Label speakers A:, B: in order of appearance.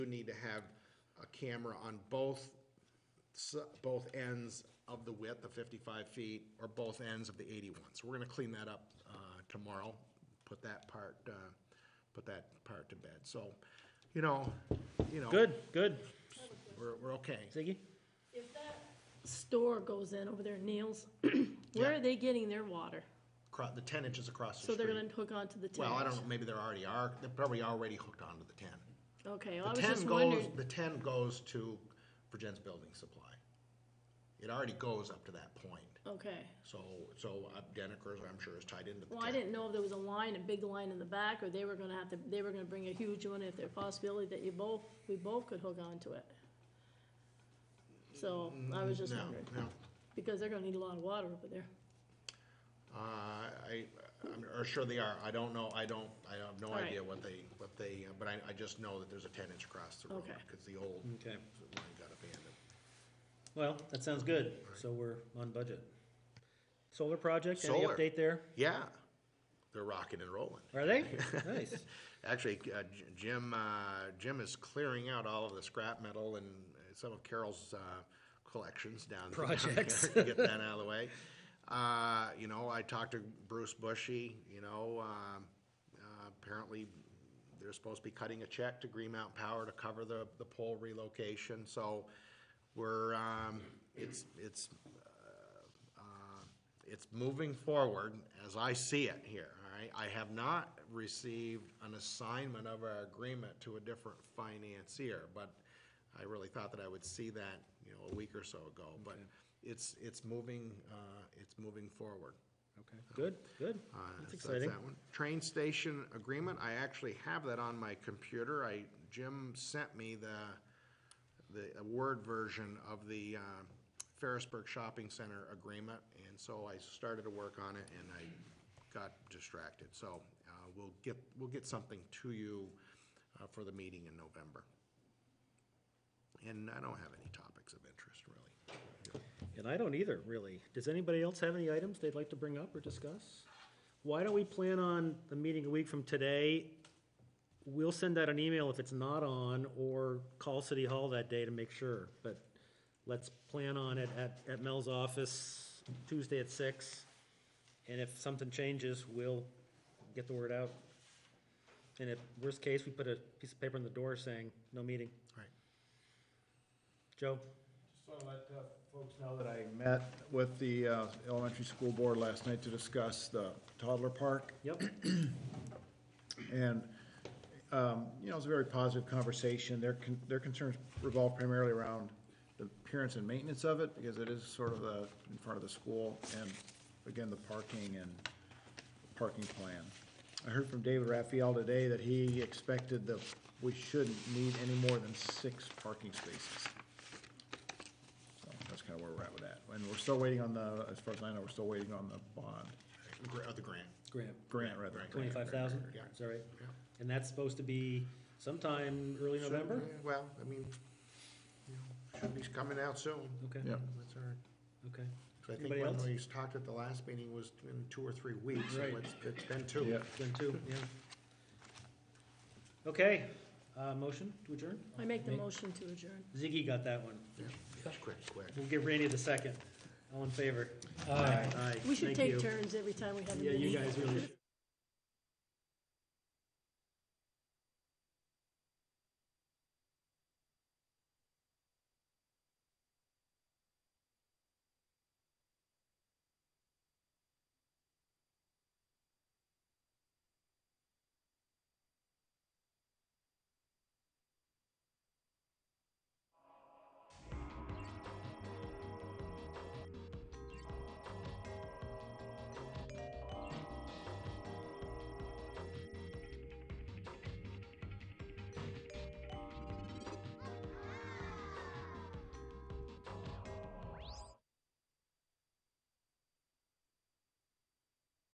A: do need to have a camera on both, s- both ends of the width of 55 feet or both ends of the 81. So we're going to clean that up uh, tomorrow, put that part, uh, put that part to bed. So, you know, you know.
B: Good, good.
A: We're, we're okay.
B: Ziggy?
C: If that store goes in over there, Neil's, where
A: Yeah.
C: are they getting their water?
A: Cro- The 10 inches across the
C: So
A: street.
C: they're gonna hook onto the ten?
A: Well, I don't know, maybe they're already are, they're probably already hooked onto the 10.
C: Okay, well, I
A: The
C: was
A: 10
C: just
A: goes,
C: wondering,
A: the 10 goes to Virgin's Building Supply. It already goes up to that point.
C: okay.
A: So, so uh, Deniker's, I'm sure, is tied into the
C: Well, I
A: 10.
C: didn't know if there was a line, a big line in the back, or they were gonna have to, they were gonna bring a huge one, if there's a possibility that you both, we both could hook onto it. So, I was just
A: No,
C: wondering,
A: no.
C: because they're gonna need a lot of water over there.
A: Uh, I, I'm or sure they are. I don't know. I don't, I have no
C: All right.
A: idea what they, what they, uh, but I, I just know that there's a 10 inch across the road.
C: Okay.
A: Because the old line
B: Okay.
A: got abandoned.
B: Well, that sounds good. So we're on budget. Solar project, any
A: Solar.
B: update there?
A: Yeah, they're rocking and rolling.
B: Are they? Nice.
A: Actually, uh, J- Jim, uh, Jim is clearing out all of the scrap metal and some of Carol's uh, collections down.
B: Projects.
A: to Get that out of the way. Uh, You know, I talked to Bruce Bushy, you know, um, uh, apparently they're supposed to be cutting a check to Green Mountain Power to cover the, the pole relocation. So we're, um, it's, it's uh, it's moving forward as I see it here, all right? I have not received an assignment of our agreement to a different financier, but I really thought that I would see that, you know, a week or so ago, but it's, it's moving, uh, it's moving forward.
B: Okay, good, good.
A: Uh, so
B: That's exciting.
A: that one. Train station agreement, I actually have that on my computer. I, Jim sent me the, the a Word version of the um, Ferrisburg Shopping Center agreement, and so I started to work on it, and I got distracted. So uh, we'll get, we'll get something to you uh, for the meeting in November. And I don't have any topics of interest, really.
B: And I don't either, really. Does anybody else have any items they'd like to bring up or discuss? Why don't we plan on the meeting a week from today? We'll send out an email if it's not on, or call City Hall that day to make sure. But let's plan on it at, at Mel's office Tuesday at six. And if something changes, we'll get the word out. And if, worst case, we put a piece of paper on the door saying, no meeting.
A: All right.
B: Joe?
D: Just want to let uh, folks know that I met with the uh, elementary school board last night to discuss the toddler park,
B: Yep.
D: and, um, you know, it was a very positive conversation. Their, con- their concerns revolve primarily around the appearance and maintenance of it, because it is sort of the, in front of the school, and again, the parking and parking plan. I heard from David Raphael today that he expected that we shouldn't need any more than six parking spaces. So that's kind of where we're at with that. And we're still waiting on the, as far as I know, we're still waiting on the bond,
A: Gra- Of uh, the grant.
B: Graham.
D: grant rather.
B: Twenty-five thousand?
A: Yeah.
B: Is that right?
A: Yeah.
B: And that's supposed to be sometime early November?
A: Well, I mean, you know, should be coming out soon.
B: Okay,
D: Yeah.
A: That's all right.
B: okay.
A: So I think
B: Anybody
A: when
B: else?
A: we talked at the last meeting was in two or three weeks, so
B: Right.
A: it's, it's been two.
D: Yeah.
B: Then two, yeah. Okay, uh, motion to adjourn?
C: I make the motion to adjourn.
B: Ziggy got that one.
A: Yeah, It's quick, quick.
B: We'll give Randy the second. All in favor? Aye. Aye.
C: We should
B: Thank
C: take
B: you.
C: turns every time we have a
B: Yeah,
C: meeting.
B: you guys really should.